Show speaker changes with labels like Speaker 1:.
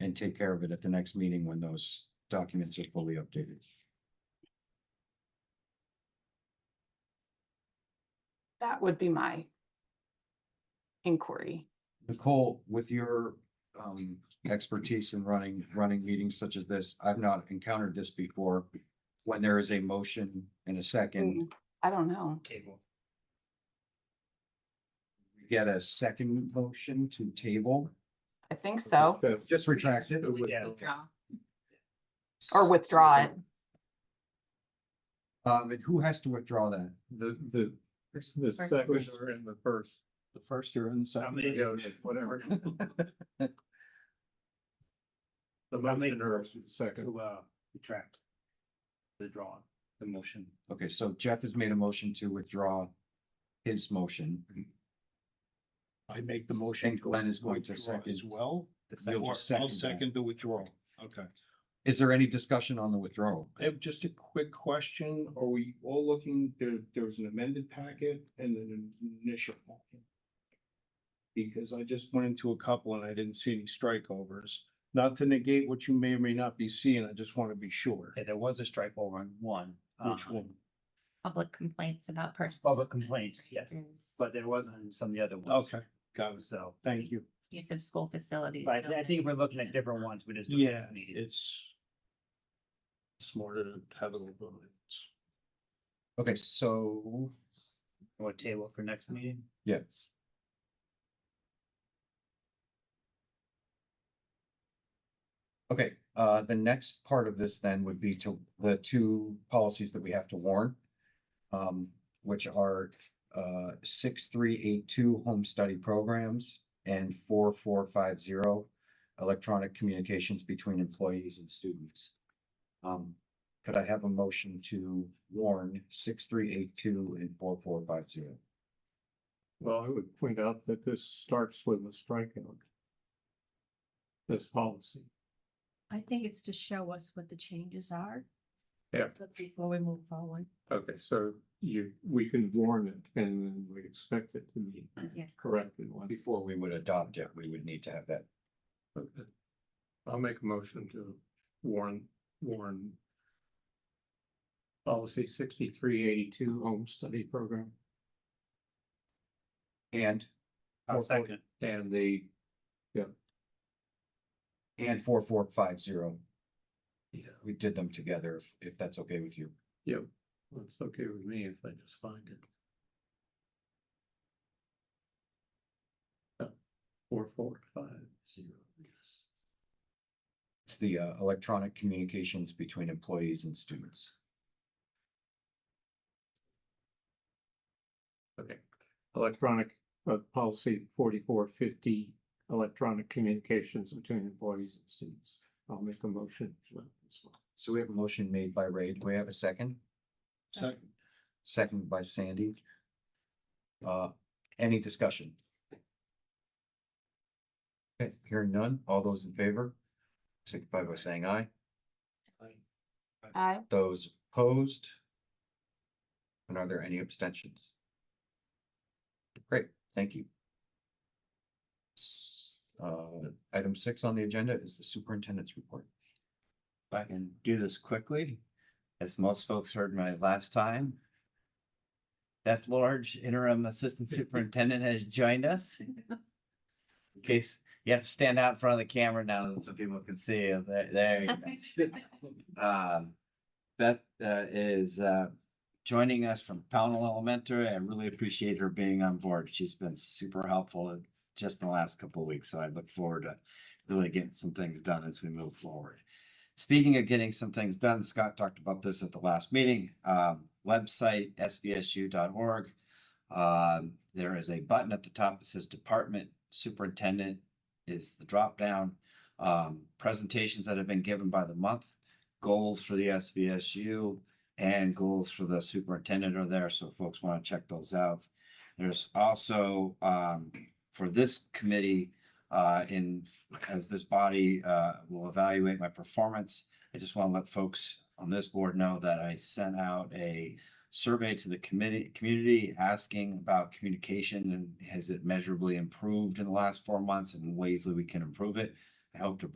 Speaker 1: and take care of it at the next meeting when those documents are fully updated.
Speaker 2: That would be my inquiry.
Speaker 1: Nicole, with your um expertise in running, running meetings such as this, I've not encountered this before. When there is a motion and a second,
Speaker 2: Mm, I don't know.
Speaker 3: Table.
Speaker 1: we get a second motion to table,
Speaker 2: I think so,
Speaker 1: just retract it.
Speaker 3: Yeah.
Speaker 2: or withdraw it.
Speaker 1: Um, and who has to withdraw that?
Speaker 4: The, the, the second or in the first.
Speaker 1: The first or the
Speaker 3: I'll make-
Speaker 4: It goes, whatever. The
Speaker 3: I'll make-
Speaker 4: motion or the second.
Speaker 3: To, uh, retract. The drawing, the motion.
Speaker 1: Okay, so Jeff has made a motion to withdraw his motion.
Speaker 5: I make the motion.
Speaker 1: And Glenn is going to
Speaker 5: withdraw
Speaker 1: second.
Speaker 5: As well.
Speaker 3: the
Speaker 1: You'll
Speaker 3: second
Speaker 5: Or
Speaker 1: just
Speaker 5: I'll
Speaker 1: second
Speaker 5: second the withdrawal. Okay.
Speaker 1: Is there any discussion on the withdrawal?
Speaker 5: I have just a quick question. Are we all looking, there, there was an amended packet and an initial packet? Because I just went into a couple and I didn't see any strikeovers. Not to negate what you may or may not be seeing, I just want to be sure.
Speaker 3: Okay, there was a strike over on one.
Speaker 5: Which
Speaker 3: uh,
Speaker 5: one?
Speaker 6: public complaints about personal
Speaker 3: Public complaints, yeah, but there wasn't some of the other ones.
Speaker 5: Okay, got it.
Speaker 3: So,
Speaker 5: Thank you.
Speaker 6: use of school facilities.
Speaker 3: but I thi- I think if we're looking at different ones, we just. do it as
Speaker 5: Yeah,
Speaker 3: needed.
Speaker 5: it's smarter to have it all. done. It's-
Speaker 1: Okay, so
Speaker 3: Or table for next meeting.
Speaker 1: Yeah. Okay, uh, the next part of this then would be to the two policies that we have to warn. Um, which are, uh, six, three, eight, two, home study programs and four, four, five, zero. Electronic communications between employees and students. Um, could I have a motion to warn six, three, eight, two and four, four, five, zero?
Speaker 4: Well, I would point out that this starts with a strikeout. This policy.
Speaker 7: I think it's to show us what the changes are.
Speaker 4: Yeah.
Speaker 7: But Before we move forward.
Speaker 4: Okay, so you, we can warn it and then we expect it to be
Speaker 7: Yeah.
Speaker 4: corrected once.
Speaker 1: Before we would adopt it, we would need to have that.
Speaker 4: Okay. I'll make a motion to warn, warn. Policy sixty-three eighty-two, home study program,
Speaker 1: And
Speaker 3: I'll
Speaker 1: Four, four.
Speaker 3: second.
Speaker 4: and the,
Speaker 1: And four, four, five, zero.
Speaker 4: yeah,
Speaker 1: We did them together, if- if that's okay with you.
Speaker 4: yeah, it's okay with me if I just find it. Uh, Four, four, five, zero, yes.
Speaker 1: It's the uh, electronic communications between employees and students.
Speaker 4: Okay, electronic, uh, policy forty-four fifty, electronic communications between employees and students. I'll make a motion. for that as well.
Speaker 1: So we have a motion made by Ray. Do we have a second?
Speaker 5: Second.
Speaker 1: Second by Sandy. Uh, any discussion? Okay, hearing none. All those in favor? Signify by saying aye.
Speaker 2: I,
Speaker 1: Those opposed? And are there any abstentions? Great, thank you. S- Uh, item six on the agenda is the superintendent's report.
Speaker 8: if I can do this quickly, as most folks heard my last time. Beth Large, interim assistant superintendent, has joined us. In case you have to stand out in front of the camera now so people can see you. There, there you go. Um, Beth uh, is uh, joining us from Pownell Elementary. I really appreciate her being on board. She's been super helpful just in the last couple of weeks. So I look forward to really getting some things done as we move forward. Speaking of getting some things done, Scott talked about this at the last meeting, um, website sbsu.org. Um, there is a button at the top that says Department Superintendent is the dropdown. Um, presentations that have been given by the month, goals for the SVSU and goals for the superintendent are there, so folks want to check those out. There's also, um, for this committee, uh, in, as this body, uh, will evaluate my performance. I just want to let folks on this board know that I sent out a survey to the committee, community asking about communication and has it measurably improved in the last four months and ways that we can improve it. I hope to